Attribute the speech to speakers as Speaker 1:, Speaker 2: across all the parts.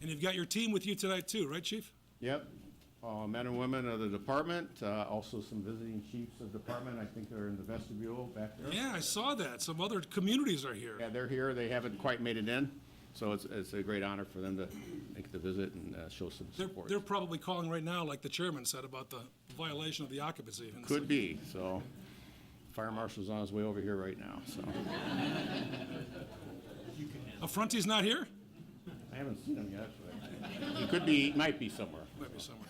Speaker 1: And you've got your team with you tonight too, right, Chief?
Speaker 2: Yep, Uh, men and women of the department, uh, also some visiting chiefs of department, I think they're in the vestibule back there.
Speaker 1: Yeah, I saw that. Some other communities are here.
Speaker 2: Yeah, they're here, they haven't quite made it in, so it's, it's a great honor for them to make the visit and uh, show some
Speaker 1: They're,
Speaker 2: support.
Speaker 1: they're probably calling right now, like the chairman said, about the violation of the occupancy. And it's
Speaker 2: Could
Speaker 1: like,
Speaker 2: be, so fire marshal's on his way over here right now, so.
Speaker 1: Affronti's not here?
Speaker 2: I haven't seen him yet, but he could be, might be somewhere.
Speaker 1: Might be somewhere.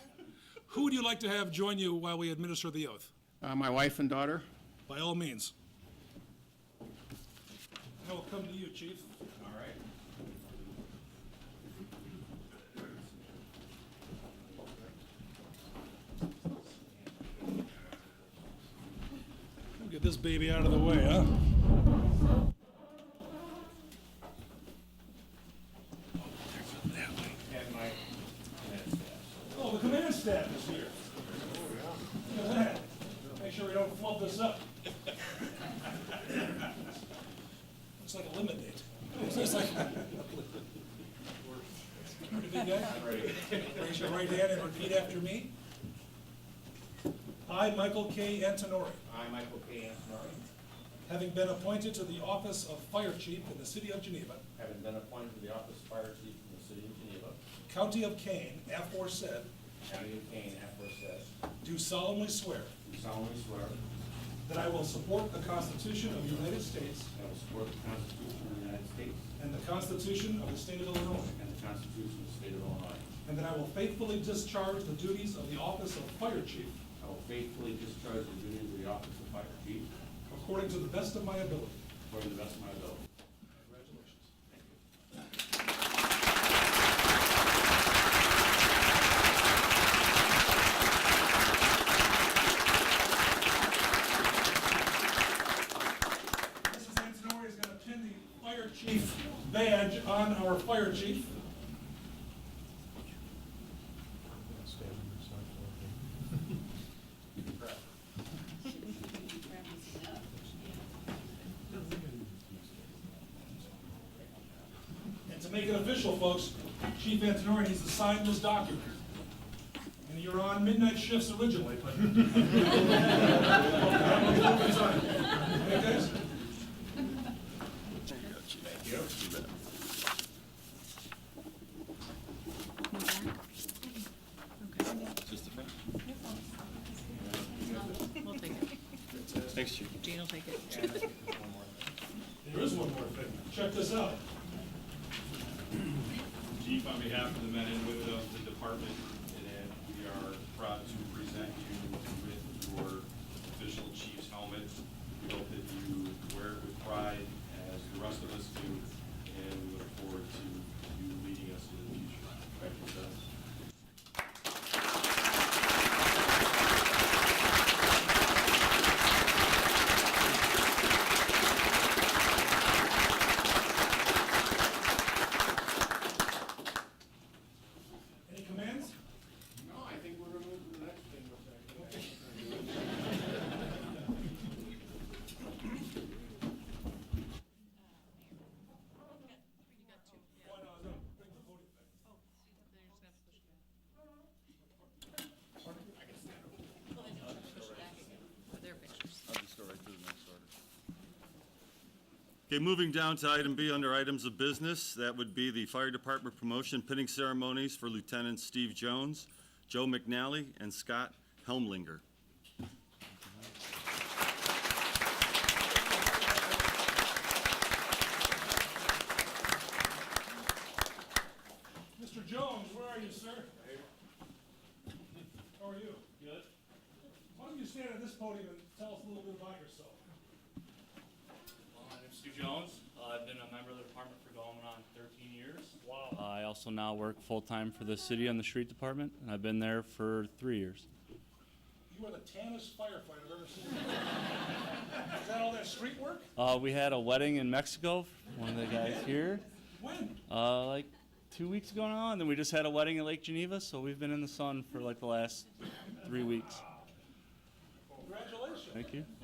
Speaker 1: Who would you like to have join you while we administer the oath?
Speaker 2: Uh, My wife and daughter,
Speaker 1: By all means. I will come to you, chief. All right. Get this baby out of the way, huh?
Speaker 2: and my
Speaker 1: Oh, the command staff is here. Look at that. Make sure we don't flub this up. Looks like a lemonade. It's like. Ready, big guy? Raise your right hand and repeat after me. I, Michael K. Antonori,
Speaker 2: I, Michael K. Antonori,
Speaker 1: having been appointed to the office of Fire Chief in the city of Geneva,
Speaker 2: having been appointed to the office of fire chief in the city of Geneva,
Speaker 1: County of Kane, aforesaid,
Speaker 2: county of Kane, aforesaid,
Speaker 1: do solemnly swear
Speaker 2: do solemnly swear that
Speaker 1: that I will support the Constitution of the United States
Speaker 2: I will support the Constitution of the United States
Speaker 1: And the Constitution of the State of Illinois.
Speaker 2: and the Constitution of the state of Illinois.
Speaker 1: And that I will faithfully discharge the duties of the office of Fire Chief
Speaker 2: I will faithfully discharge the duties of the office of fire chief
Speaker 1: according to the best of my ability.
Speaker 2: according to the best of my ability.
Speaker 1: Congratulations. Mrs. Antonori is going to pin the Fire Chief badge on our Fire Chief. And to make it official, folks, Chief Antonori needs to sign this document. And you're on midnight shifts originally, but. Okay, guys?
Speaker 3: We'll take it.
Speaker 2: Thanks, chief.
Speaker 3: Jean will take it.
Speaker 1: There is one more thing. Check this out.
Speaker 4: Chief, on behalf of the men and women of the department, and we are proud to present you with your official chief's helmet. We hope that you wear it with pride, as the rest of us do, and we look forward to you leading us in the future. Thank you, sir.
Speaker 1: Any commands?
Speaker 2: No, I think we're gonna move to the next thing.
Speaker 3: Their pictures.
Speaker 5: I'll just go right to the next order. Okay, moving down to item B under items of business, that would be the fire department promotion pinning ceremonies for Lieutenant Steve Jones, Joe McNally, and Scott Helmlinger.
Speaker 1: Mr. Jones, where are you, sir? How are you? Good. Why don't you stand at this podium and tell us a little bit about yourself?
Speaker 6: Well, My name's Stu Jones. Uh, I've been a member of the department for going on 13 years. Wow. I also now work full-time for the city on the street department, and I've been there for three years.
Speaker 1: You are the tannest firefighter I've ever seen. Is that all that street work?
Speaker 6: Uh, We had a wedding in Mexico, one of the guys here,
Speaker 1: When?
Speaker 6: uh, like two weeks ago now, and then we just had a wedding in Lake Geneva, so we've been in the sun for like the last three weeks.
Speaker 1: Congratulations.
Speaker 6: Thank you.